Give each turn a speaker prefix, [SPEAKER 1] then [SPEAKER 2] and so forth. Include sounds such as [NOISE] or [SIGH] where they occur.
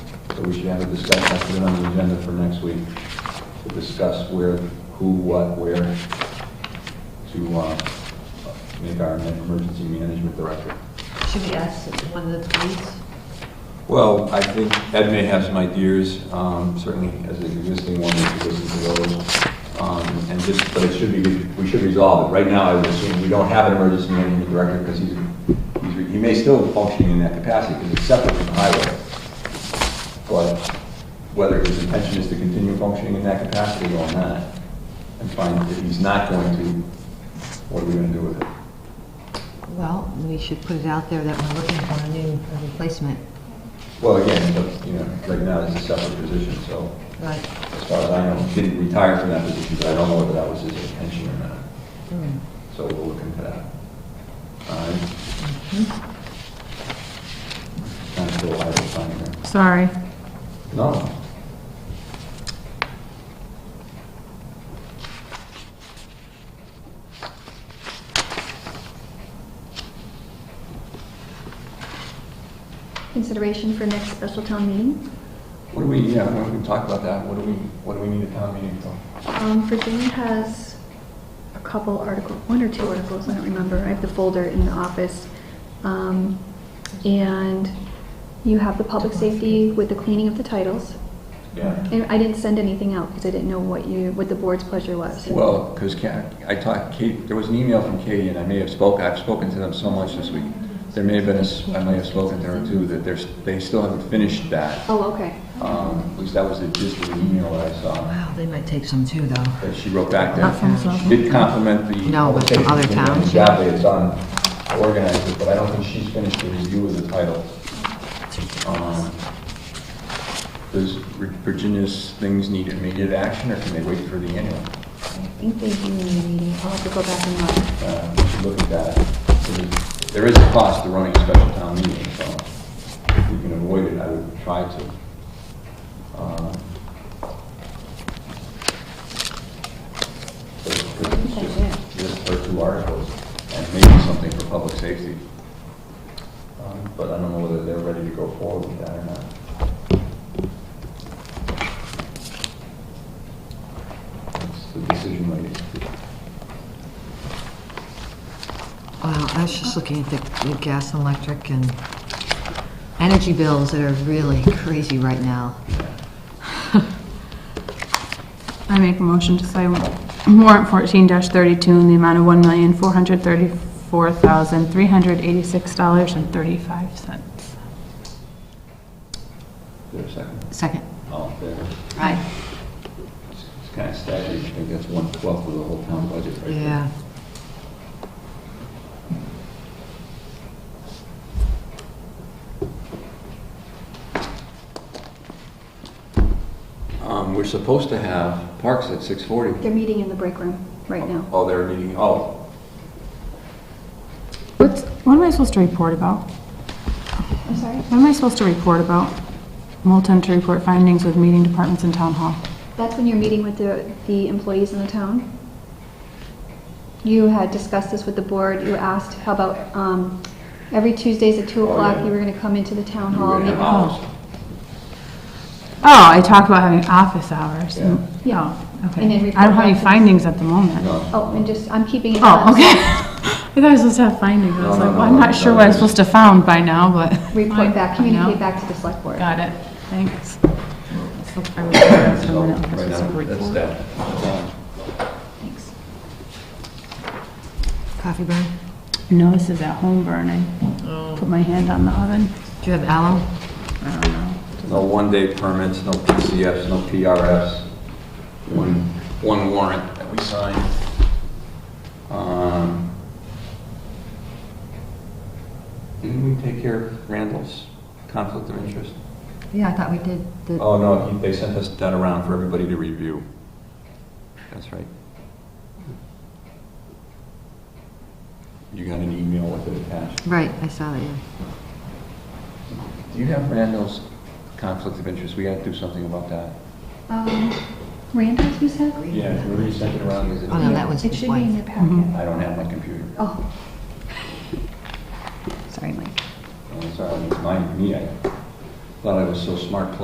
[SPEAKER 1] So we should have a discussion, I'll put it on the agenda for next week to discuss where, who, what, where, to uh, make our emergency management director.
[SPEAKER 2] Should we ask one of the police?
[SPEAKER 1] Well, I think Ed may have some ideas, um, certainly as an existing one, we should listen to those. Um, And just, but it should be, we should resolve it. Right now, I would assume we don't have an emergency management director because he's, he's- he may still be functioning in that capacity because it's separate from highway. But whether his intention is to continue functioning in that capacity or not, and find that he's not going to, what are we going to do with it?
[SPEAKER 2] Well, we should put it out there that we're looking for a new a replacement.
[SPEAKER 1] Well, again, but, you know, right now, it's a separate position, so
[SPEAKER 2] Right.
[SPEAKER 1] as far as I know, he didn't retire from that position, but I don't know whether that was his intention or not. So we'll look into that. All right. Kind of feel idle time here.
[SPEAKER 3] Sorry.
[SPEAKER 1] No.
[SPEAKER 4] Consideration for next special town meeting.
[SPEAKER 1] What do we, yeah, why don't we talk about that? What do we, what do we need a town meeting for?
[SPEAKER 4] Um, Virginia has a couple articles, one or two articles, I don't remember. I have the folder in the office. Um, and you have the public safety with the cleaning of the titles.
[SPEAKER 1] Yeah.
[SPEAKER 4] And I didn't send anything out because I didn't know what you, what the board's pleasure was.
[SPEAKER 1] Well, because I talked, Kate, there was an email from Katie, and I may have spoke, I've spoken to them so much this week. There may have been, a s- I may have spoken to her too, that there's, they still haven't finished that.
[SPEAKER 4] Oh, okay.
[SPEAKER 1] Um, At least that was the gist of the email that I saw.
[SPEAKER 2] Wow, they might take some too, though.
[SPEAKER 1] that she wrote back
[SPEAKER 3] Not from
[SPEAKER 1] then.
[SPEAKER 3] South.
[SPEAKER 1] She did compliment the.
[SPEAKER 2] No, but from other towns, yeah.
[SPEAKER 1] Exactly, it's on, organized it, but I don't think she's finished the review of the title. Um, Does Vir- Virginia's things need immediate action, or can they wait for the annual?
[SPEAKER 4] I think they do need a meeting. I'll have to go back and look.
[SPEAKER 1] Uh, we should look at that. So there- There is a cost to running a special town meeting, so if we can avoid it, I would try to. Um, so it's just- Just for two articles, and maybe something for public safety. Um, But I don't know whether they're ready to go forward with that or not. That's the decision ladies.
[SPEAKER 2] Wow, I was just looking at the the gas and electric and energy bills that are really crazy right now.
[SPEAKER 3] I make a motion to sign warrant fourteen thirty-two in the amount of one million, four hundred thirty-four thousand, three hundred eighty-six dollars and thirty-five cents.
[SPEAKER 1] Is there a second?
[SPEAKER 2] Second.
[SPEAKER 1] All in favor?
[SPEAKER 2] Right.
[SPEAKER 1] It's kind of staggering, I think that's one twelfth of the whole town budget right there.
[SPEAKER 2] Yeah.
[SPEAKER 1] Um, we're supposed to have parks at six forty.
[SPEAKER 4] They're meeting in the break room right now.
[SPEAKER 1] Oh, they're meeting, oh,
[SPEAKER 3] What's, what am I supposed to report about?
[SPEAKER 4] I'm sorry.
[SPEAKER 3] What am I supposed to report about? Molten to report findings with meeting departments in town hall.
[SPEAKER 4] That's when you're meeting with the, the employees in the town? You had discussed this with the board, you asked, how about, um, every Tuesdays at two
[SPEAKER 1] Oh,
[SPEAKER 4] o'clock,
[SPEAKER 1] yeah.
[SPEAKER 4] you were gonna come into the town
[SPEAKER 1] we're
[SPEAKER 4] hall,
[SPEAKER 1] gonna
[SPEAKER 4] meet
[SPEAKER 1] have
[SPEAKER 4] with-
[SPEAKER 1] hours.
[SPEAKER 3] Oh, I talked about having office hours.
[SPEAKER 1] Yeah.
[SPEAKER 3] Yeah. Okay.
[SPEAKER 4] And then report
[SPEAKER 3] I don't have any
[SPEAKER 4] back to-
[SPEAKER 3] findings at the moment.
[SPEAKER 1] No,
[SPEAKER 4] oh, and just, I'm keeping it.
[SPEAKER 3] Oh, okay. I thought I was supposed to have findings. I was
[SPEAKER 1] No, no,
[SPEAKER 3] like, well,
[SPEAKER 1] no,
[SPEAKER 3] I'm
[SPEAKER 1] no,
[SPEAKER 3] not sure
[SPEAKER 1] no,
[SPEAKER 3] what I'm
[SPEAKER 1] it's-
[SPEAKER 3] supposed to found by now, but.
[SPEAKER 4] [LAUGHS] Report back,
[SPEAKER 3] I know.
[SPEAKER 4] communicate back to the select board.
[SPEAKER 3] Got it. Thanks. So I was there for
[SPEAKER 1] so,
[SPEAKER 3] a
[SPEAKER 1] right
[SPEAKER 3] minute. This is a
[SPEAKER 1] now, that's
[SPEAKER 3] report.
[SPEAKER 1] that. Um,
[SPEAKER 4] Thanks.
[SPEAKER 2] Coffee burn?
[SPEAKER 3] No, this is at home burning. Put my hand on the oven.
[SPEAKER 2] Do you have aloe?
[SPEAKER 3] I don't know.
[SPEAKER 1] No one-day permits, no PCFs, no PRFs, one, one warrant that we signed. Um, Didn't we take care of Randall's conflict of interest?
[SPEAKER 2] Yeah, I thought we did the,
[SPEAKER 1] Oh, no, he- they sent us that around for everybody to review. That's right. You got an email with it attached.
[SPEAKER 2] right, I saw that, yeah.
[SPEAKER 1] Do you have Randall's conflict of interest? We gotta do something about that.
[SPEAKER 4] Um, Randall, you said?
[SPEAKER 1] Yeah, Marie sent it around, is it?
[SPEAKER 2] Oh, no, that was
[SPEAKER 4] It
[SPEAKER 2] his
[SPEAKER 4] should be in
[SPEAKER 2] wife.
[SPEAKER 4] your
[SPEAKER 3] Mm-hmm.
[SPEAKER 4] packet.
[SPEAKER 1] I don't have my computer.
[SPEAKER 4] Oh. Sorry, Mike.
[SPEAKER 1] Oh, Sorry, mine, me, I thought I was so smart